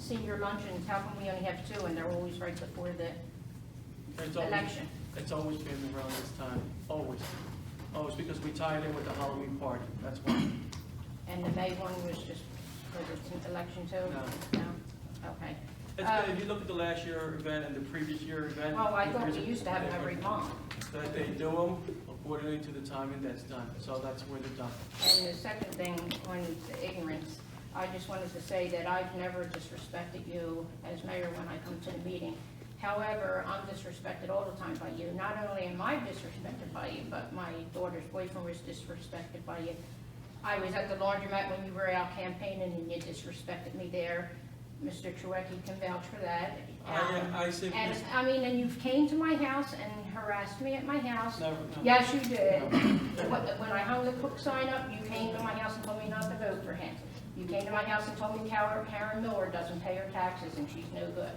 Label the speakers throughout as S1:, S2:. S1: senior luncheons, how come we only have two and they're always right before the
S2: It's always-
S1: election?
S2: It's always been around this time, always. Always, because we tie it in with the Halloween party, that's why.
S1: And the May one was just for the election too?
S2: No.
S1: No? Okay.
S2: It's good, if you look at the last year event and the previous year event.
S1: Oh, uh, I thought
S2: there's
S1: we
S2: a-
S1: used to have them every month.
S2: That they do them accordingly to the timing that's done, so that's where they're done.
S1: And the second thing, on the ignorance, I just wanted to say that I've never disrespected you as mayor when I come to the meeting. However, I'm disrespected all the time by you. Not only am I disrespected by you, but my daughter's boyfriend was disrespected by you. I was at the laundromat when you were out campaigning and you disrespected me there. Mr. Chouwaki can vouch for that. Um,
S2: I, I simply,
S1: And, I mean, and you've came to my house and harassed me at my house.
S2: never, no.
S1: Yes, you did. When when I hung the cook sign up, you came to my house and told me not to vote for him. You came to my house and told me Karen Karen Miller doesn't pay her taxes and she's no good.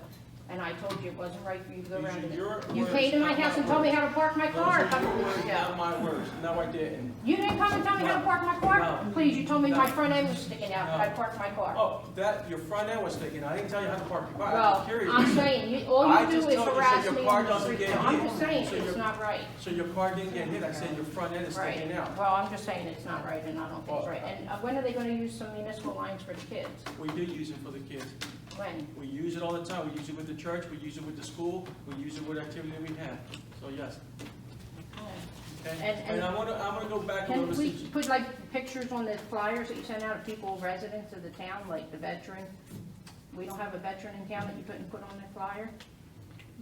S1: And I told you it wasn't right for you to go
S2: These
S1: around
S2: are
S1: and...
S2: your
S1: You
S2: words,
S1: came to my
S2: not
S1: house
S2: my
S1: and told me
S2: words.
S1: how to park my
S2: Those
S1: car a
S2: are
S1: couple
S2: your
S1: weeks
S2: words,
S1: ago.
S2: Not my words, no, I didn't.
S1: You didn't come and tell me how to
S2: No.
S1: park my car?
S2: No.
S1: Please, you told me my
S2: No.
S1: front end was sticking out, but I
S2: No.
S1: parked my car.
S2: Oh, that, your front end was thinking, I didn't tell you how to park your bike, I was
S1: Well,
S2: curious.
S1: I'm saying, you- all
S2: I
S1: you do
S2: just
S1: is
S2: told you, so
S1: harass
S2: your
S1: me
S2: car
S1: and
S2: doesn't
S1: disrespect.
S2: get
S1: I'm
S2: hit.
S1: just saying,
S2: So
S1: it's
S2: your-
S1: not right.
S2: So your car didn't get hit, I said your front end is
S1: Right,
S2: sticking out.
S1: well, I'm just saying it's not right, and I don't think it's
S2: Well,
S1: right. And uh, when are they gonna use some municipal lines for the kids?
S2: We do use it for the kids.
S1: When?
S2: We use it all the time. We use it with the church, we use it with the school, we use it with activity we have. So yes,
S1: And-
S2: okay?
S1: and-
S2: And I want to, I want to go back a little
S1: Can we
S2: bit.
S1: put like pictures on the flyers that you send out of people, residents of the town, like the veteran? We don't have a veteran in town that you couldn't put on the flyer?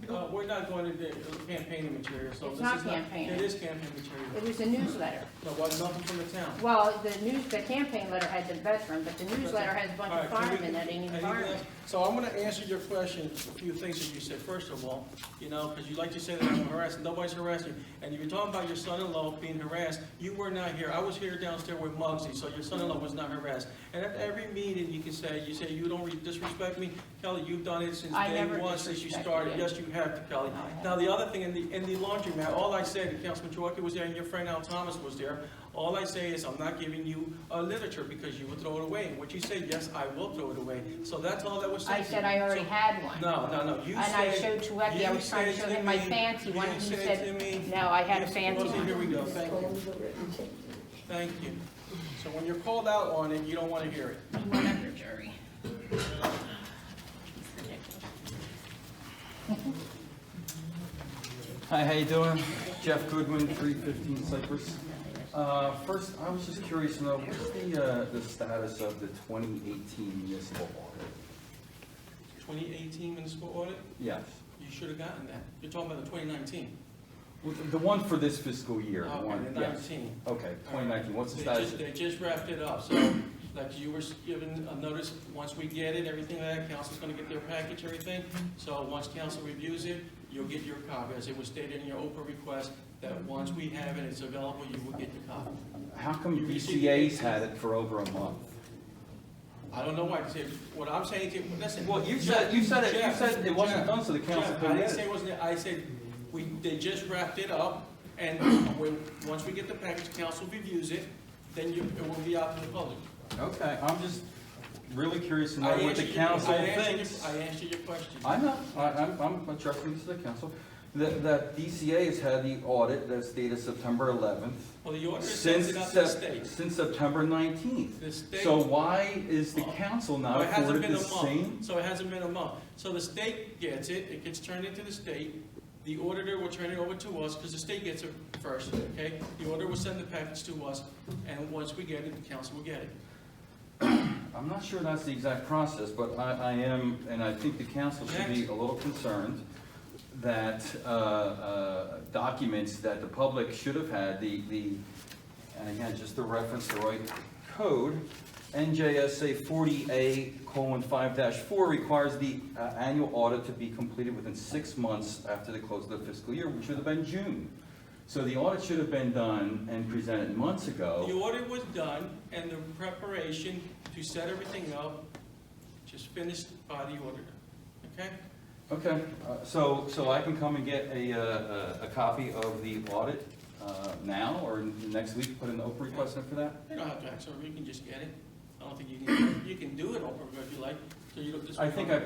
S2: Uh, We're not going to do campaigning material, so
S1: It's
S2: this
S1: not
S2: is not.
S1: campaigning.
S2: It is campaign material.
S1: It was a newsletter.
S2: No, what, nothing from the town.
S1: Well, the news, the campaign letter had the veteran, but the newsletter has a bunch
S2: All
S1: of
S2: right, can we-
S1: firemen that ain't even
S2: anything
S1: firemen.
S2: else? So I'm going to answer your question, a few things that you said. First of all, you know, because you like to say that I'm harassing, nobody's harassing. And you were talking about your son-in-law being harassed. You were not here. I was here downstairs with Muggsy, so your son-in-law was not harassed. And at every meeting, you can say, you say, you don't re- disrespect me. Kelly, you've done it since
S1: I
S2: day
S1: never
S2: one, since you
S1: disrespected
S2: started.
S1: you.
S2: Yes, you have, Kelly.
S1: No, I haven't.
S2: Now, the other thing, in the, in the laundromat, all I said, and Councilman Chouaki was there, and your friend Al Thomas was there, all I say is, I'm not giving you uh, literature because you will throw it away. And what you said, yes, I will throw it away. So that's all that was said.
S1: I
S2: to
S1: said
S2: you.
S1: I already
S2: So-
S1: had one.
S2: No, no, no, you
S1: And I showed
S2: said.
S1: Chouwaki, I
S2: you
S1: was trying to
S2: said
S1: show him my
S2: me-
S1: fancy one,
S2: you
S1: and he
S2: said
S1: said,
S2: to me-
S1: no, I had a
S2: Yes,
S1: fancy
S2: Rosie, Here
S1: one.
S2: we go, thank you, thank you. So when you're called out on it, you don't want to hear it.
S1: Whatever, Jerry. It's ridiculous.
S3: Hi, how you doing? Jeff Goodwin, 315 Cypress. Uh, First, I was just curious to know, what's the, uh, the status of the 2018 municipal audit?
S2: 2018 municipal audit,
S3: Yes,
S2: you should have gotten that. You're talking about the 2019.
S3: Well, the one for this fiscal year, the
S2: Okay,
S3: one,
S2: the
S3: yes.
S2: 19.
S3: Okay, 2019, what's the
S2: They
S3: status?
S2: just, they just wrapped it up, so, like you were given a notice, once we get it, everything like that, council's gonna get their package, everything. So once council reviews it, you'll get your copy, as it was stated in your Oprah request, that once we have it, it's available, you will get the copy.
S3: How come
S2: You received-
S3: BCA's had it for over a month?
S2: I don't know why, Tim, what I'm saying to you, listen.
S3: Well, you said, you said it, you
S2: Jeff,
S3: said it wasn't
S2: Jeff,
S3: done, so the council
S2: Jeff, I
S3: couldn't
S2: didn't
S3: get
S2: say
S3: it.
S2: it wasn't, I said, we, they just wrapped it up, and when, once we get the package, council reviews it, then you, it will be out to the public.
S3: Okay, I'm just really curious to know
S2: I
S3: what
S2: answered
S3: the
S2: your-
S3: council
S2: I answered your-
S3: thinks.
S2: I answered your question.
S3: I know, I, I'm, I'm addressing this to the council, that, that DCA has had the audit that's dated September eleventh.
S2: Well, the order
S3: Since,
S2: sends it up to the
S3: Sep-
S2: state.
S3: since September nineteenth.
S2: The state,
S3: So
S2: so
S3: why is the council not
S2: it hasn't
S3: afforded
S2: been
S3: the
S2: a
S3: same?
S2: month. So it hasn't been a month. So the state gets it, it gets turned into the state. The auditor will turn it over to us because the state gets it first, okay? The auditor will send the package to us, and once we get it, the council will get it.
S3: I'm not sure that's the exact process, but I, I am, and I think the council should be a little concerned that, uh, uh, documents that the public should have had, the, the, and again, just to reference the right code, NJSA forty A colon five dash four requires the, uh, annual audit to be completed within six months after the close of the fiscal year, which would have been June. So the audit should have been done and presented months ago.
S2: The audit was done, and the preparation to set everything up just finished by the auditor, okay?
S3: Okay, uh, so, so I can come and get a, uh, a a copy of the audit uh, now, or next week, put an open request in for that?
S2: You don't have to act, so you can just get it. I don't think you can, you can do it over if you like, so you don't just.
S3: I think I